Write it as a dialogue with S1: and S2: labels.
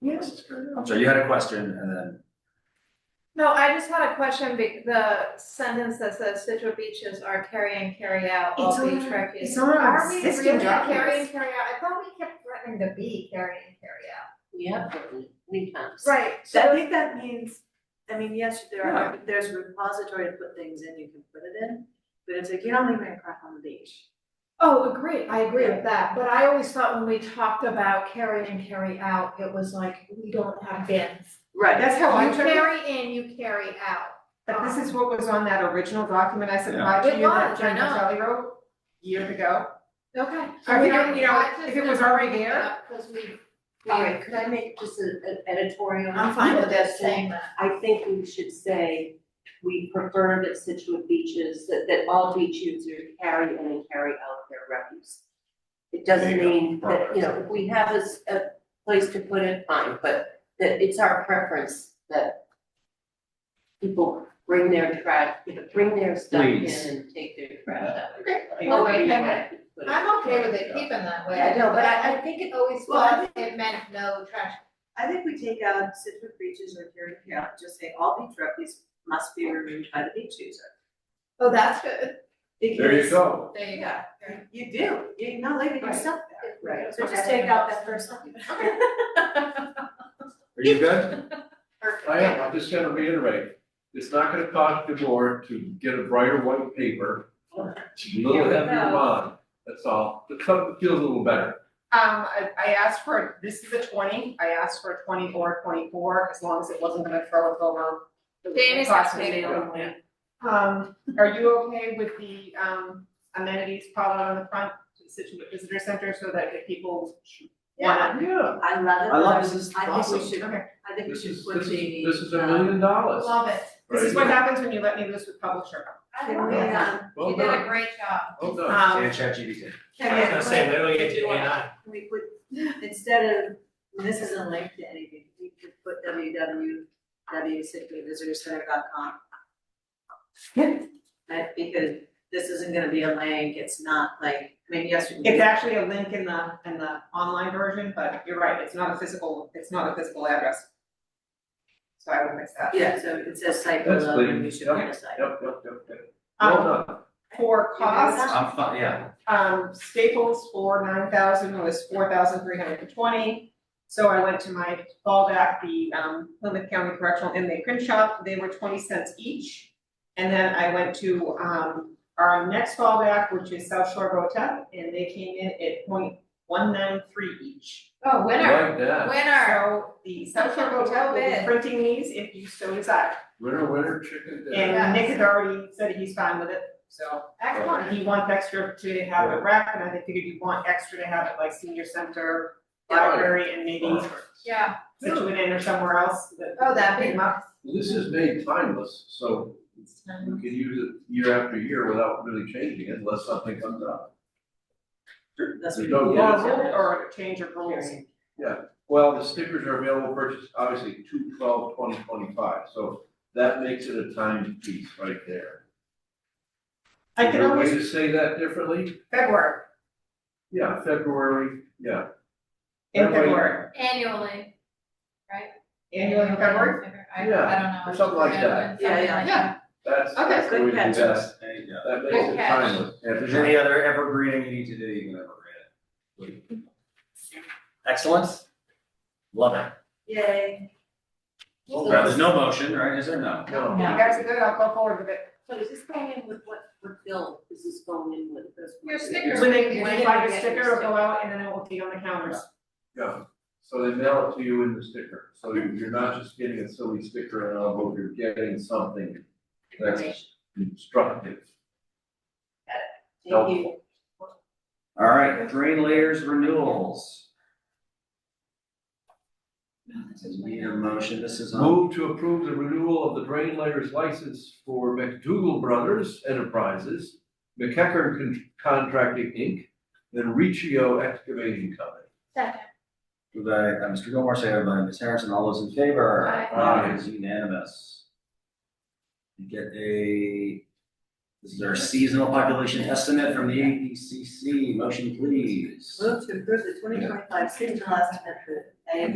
S1: Yes.
S2: So you had a question and then,
S3: No, I just had a question, be- the sentence that says Situate beaches are carry and carry out, all
S1: It's on
S3: beach
S1: our-
S3: refuge.
S1: it's on our
S3: Are we
S1: existing
S3: really carry and
S1: documents.
S3: carry out? I thought we kept threatening to be carry and carry out.
S4: We have written many times.
S3: Right,
S1: So I
S3: so,
S1: think that means, I mean, yes, there are, there's a repository to put things in, you can put it in, but it's like, you don't leave my crap on the beach.
S3: oh, agree, I agree with that, but I always thought when we talked about carry and carry out, it was like, we don't have bins.
S5: Right, that's how I
S3: You
S5: took it,
S3: carry in, you carry out.
S5: but this is what was on that original document I supplied
S3: It
S5: to you that
S3: was, I
S5: Jen
S3: know.
S5: Kelly wrote years ago.
S3: Okay.
S5: I mean,
S3: Okay,
S5: you know,
S3: I just
S5: if it was
S3: didn't bring
S5: already
S3: it
S5: there-
S3: up 'cause we,
S4: Alright, could I make just a- an editorial?
S3: I'm fine with that
S4: this
S3: saying that.
S4: I think we should say, we prefer that Situate beaches, that, that all beach users carry in and carry out their refuse. It doesn't
S2: There you go.
S4: mean that, you know, if we have a, s- a place to put it, fine, but that it's our preference that people bring their trash, you know, bring their stuff in
S2: Please.
S4: and take their trash out.
S3: Okay.
S4: Like,
S3: Oh,
S4: we
S3: wait, hang on.
S4: have to put it-
S3: I'm okay with it keeping that way.
S4: Yeah, I know, but I, I think it always
S3: Well, I think it meant no trash.
S1: I think we take out Citrus beaches or here and here, just say all beach refuse must be removed by the beach user.
S3: Oh, that's good.
S2: there you go.
S3: There you
S1: Yeah.
S3: go.
S1: You do, you're not leaving your
S5: Right.
S1: stuff there.
S5: Right.
S1: So just take out that first document.
S2: Are you good?
S3: Perfect.
S6: I am, I'm just gonna reiterate, it's not gonna cost the board to get a brighter white paper, a little heavier bond, that's all, but something that feels a little better.
S5: Um, I, I asked for, this is a twenty, I asked for a twenty or a twenty-four, as long as it wasn't gonna throw us over. the
S3: Danny's
S5: cost
S3: not
S5: of
S3: taking
S5: the
S3: it.
S5: building. Um, are you okay with the, um, amenities piled on the front, Situate Visitor Center, so that if people wanna
S6: Yeah.
S1: I love it.
S2: I love this, this is
S1: I think we
S2: awesome.
S1: should, I think we
S6: This
S1: should
S6: is,
S1: put
S6: this
S1: the.
S6: is, this is a
S1: uh,
S6: million dollars.
S3: Love it.
S5: This is
S6: right
S5: what happens when you let me loose with publisher.
S1: Can we, um,
S6: Well
S3: You did a
S6: done,
S3: great job.
S6: well done.
S2: And
S5: Um,
S2: ChatGPT.
S1: can
S7: I was gonna say, maybe we get to A and I.
S1: Can we put, instead of, this isn't linked to anything, we could put www.situatevisitorcenter.com.
S5: Yeah.
S1: Right, because this isn't gonna be a link, it's not like, I mean, yesterday.
S5: it's actually a link in the, in the online version, but you're right, it's not a physical, it's not a physical address. So I would fix that.
S1: Yeah, so it says site
S6: That's
S1: below, and we
S6: clean.
S1: should put a site.
S6: Yep, yep, yep, yep. Well
S5: Um,
S6: done.
S5: for cost,
S2: I'm fine, yeah.
S5: um, Staples for nine thousand was four thousand three hundred and twenty. So I went to my fallback, the, um, Plymouth County Correctional Inmate Print Shop, they were twenty cents each. And then I went to, um, our next fallback, which is South Shore Rotep, and they came in at point one nine three each.
S3: Oh, winner,
S6: Like that,
S3: winner.
S5: So the Central Hotel will be printing these if you so desire.
S6: winner, winner, chicken dinner.
S5: And Nick has already said he's fine with it, so.
S3: Excellent.
S5: He wants extra to have it wrapped, and I think figured you want extra to have it like senior center, library, and maybe
S3: Yeah.
S5: Situate Inn or somewhere else that.
S3: Oh, that'd be-
S5: Pick 'em up.
S6: This is made timeless, so you can use it year after year without really changing it unless something comes up.
S1: That's
S6: There's
S1: what
S6: no
S1: we-
S5: Or
S6: Yeah.
S5: a rule, or a change of rules.
S6: Well, the stickers are available for purchase, obviously, two twelve twenty twenty-five, so that makes it a timed piece right there.
S5: I
S6: Is
S5: can
S6: there a way
S5: always,
S6: to say that differently?
S5: February,
S6: Yeah, February, yeah.
S5: in
S6: That way-
S5: February,
S3: Annually.
S5: annually in February.
S3: I, I don't
S6: Yeah,
S3: know.
S6: or something like that.
S3: Something
S1: Yeah,
S3: like
S5: yeah.
S3: that.
S6: That's,
S5: Okay,
S6: that's the
S1: good
S6: way to do
S1: catch.
S6: that.
S2: There you go.
S6: That makes
S3: Good
S6: it
S3: catch.
S6: timeless.
S2: If there's any other evergreening you need to do, you can evergreen it. Excellent. Love it.
S1: Yay.
S2: Well, There's no motion, right? Is there no?
S6: No.
S5: You guys are good, I'll go forward with it.
S4: So is this going in with what, what bill is this going in with this?
S3: Your stickers.
S5: When they,
S3: You're
S5: when they buy
S3: gonna
S5: your
S3: get
S5: sticker,
S3: your
S5: it'll go out and then it will be on the counters.
S6: Yeah, so they mail it to you in the sticker, so you-
S5: Mm-hmm.
S6: you're not just getting a silly sticker and all, but you're getting something that's instructive.
S4: Thank you.
S2: All right, drain layers renewals. Need a motion, this is on,
S6: Move to approve the renewal of the drain layers license for McDougal Brothers Enterprises, McKecker Con- Contracting Inc., and Riccio Excavating Company.
S3: Second.
S2: moved by uh, Mr. Gilmore, seconded by Ms. Harrison, all those in favor?
S3: Aye.
S6: Aye.
S2: It is unanimous. You Get a, this is our seasonal population estimate from the APCC, motion please.
S1: Move to approve the twenty twenty-five seasonal estimate for I